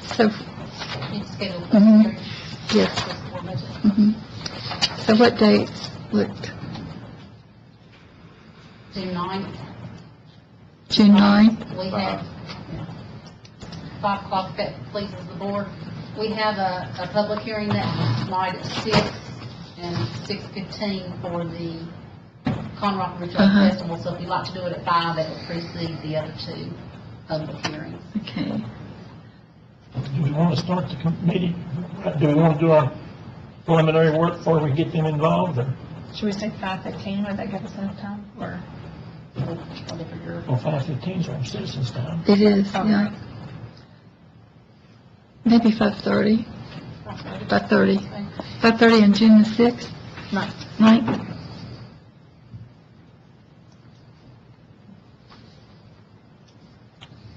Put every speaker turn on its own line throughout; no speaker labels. So,
It's scheduled.
Mhm.
for-
yes,
for the board budget.
mhm. So what dates would,
June ninth.
June ninth?
We have, five o'clock, that pleases the board. We have a, a public hearing that night at six and six fifteen for the Conrock Ridge
Uh-huh.
Festival. So if you'd like to do it at five, that would precede the other two public hearings.
Okay.
Do we want to start the committee? Do we want to do our preliminary work before we get them involved, or
Should we say five fifteen, would that give us enough time, or?
or Whatever your,
or five fifteen from citizens' time?
It is, yeah. Maybe five-thirty, five-thirty. Five-thirty on June the sixth?
Ninth.
Ninth?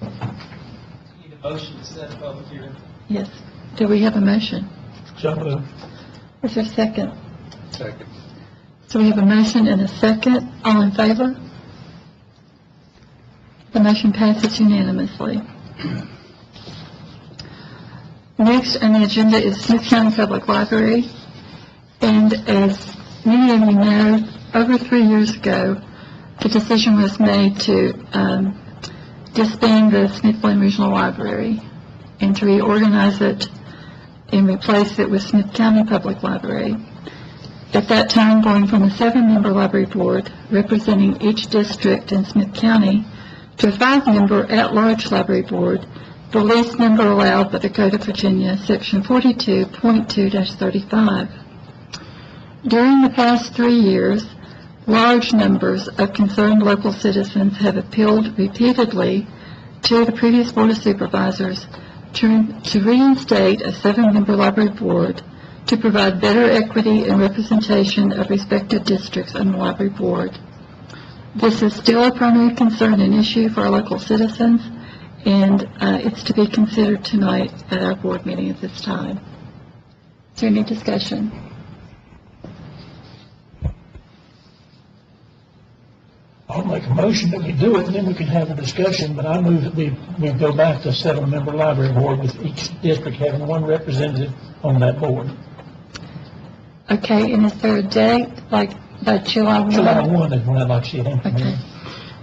Need a motion to set a public hearing.
Yes. Do we have a motion?
So uh, moved.
Is there a second?
Second.
So we have a motion and a second. All in favor? The motion passes unanimously. Next on the agenda is Smith County Public Library. And as many of you know, over three years ago, the decision was made to um, disband the Smithland Regional Library and to reorganize it and replace it with Smith County Public Library. At that time, going from a seven-member library board representing each district in Smith County to a five-member at-large library board, the least number allowed by the Code of Virginia, Section 42.2-35. During the past three years, large numbers of concerned local citizens have appealed repeatedly to the previous Board of Supervisors to to reinstate a seven-member library board to provide better equity and representation of respective districts on the library board. This is still a primary concern and issue for our local citizens, and uh, it's to be considered tonight at our board meeting at this time. Is there any discussion?
I'll make a motion that we do it, and then we can have a discussion, but I move that we, we go back to seven-member library board with each district having one representative on that board.
Okay, and is there a date, like by July 1?
July one is when I'd like to see it
Okay.
implemented.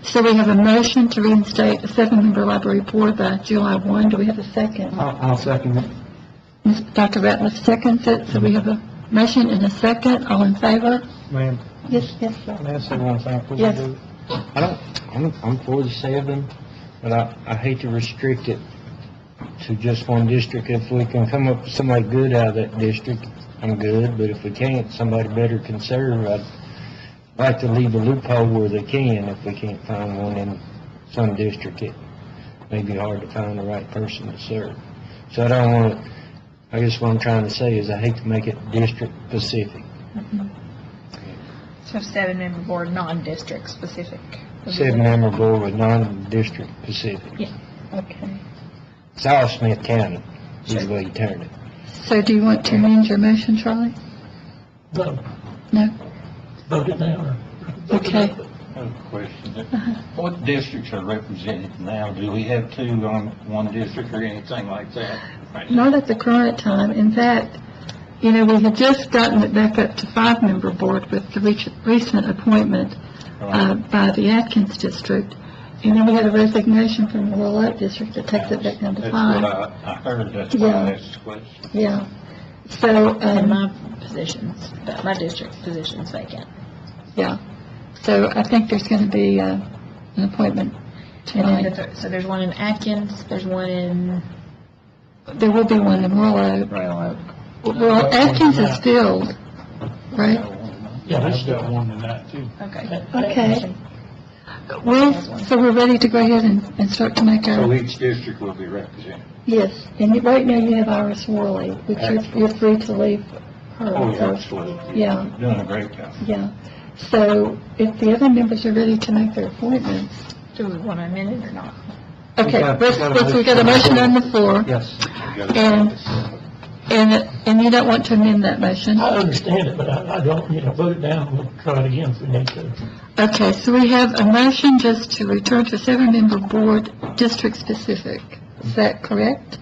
So we have a motion to reinstate a seven-member library board by July 1. Do we have a second?
I'll, I'll second it.
Ms. Dr. Ratliff seconds it, so we have a motion and a second. All in favor?
Ma'am,
Yes, yes, sir.
can I say one thing? before we
Yes.
do? I don't, I'm, I'm for the seven, but I, I hate to restrict it to just one district. If we can come up with somebody good out of that district, I'm good, but if we can't, somebody better can serve. I'd like to leave a loophole where they can, if we can't find one in some district, it may be hard to find the right person to serve. So I don't want, to. I guess what I'm trying to say is I hate to make it district specific.
So seven-member board, non-district specific.
Seven-member board with non-district Pacific.
Okay.
It's all Smith County, is the way you turn it.
So do you want to amend your motion, Charlie?
Vote,
No?
vote it now, or?
Okay.
I have a question. What districts are represented now? Do we have two on one district or anything like that? right now?
Not at the current time. In fact, you know, we had just gotten it back up to five-member board with the rec- recent appointment uh, by the Atkins district. And then we had a resignation from the Willette district that takes it back down to
That's what
five.
I, I heard, that's why
Yeah.
I asked the question.
Yeah. So,
And
um,
my position's, my district's position's vacant.
yeah. So I think there's going to be uh, an appointment
And then the
tonight.
third, so there's one in Atkins, there's one in,
There will be one in Willette. Well, Atkins is filled, right?
Yeah, there's
got one tonight, too.
okay.
Okay. Well, so we're ready to go ahead and, and start to make
So
our,
each district will be represented?
yes, and you- right now you have Iris Worley, which you're, you're free to leave her.
Oh, yeah,
so-
absolutely.
Yeah.
You're Doing a great job.
Yeah, so if the other members are ready to make their appointments.
Do we want to amend it or not?
Okay,
got-
let's,
got a
let's, we got a
motion.
motion on the floor,
Yes.
You got it.
And- and, and you don't want to amend that motion?
I understand it, but I, I don't, you know, vote it down, and we'll try it again if we need to.
Okay, so we have a motion just to return to seven-member board, district-specific. Is that correct?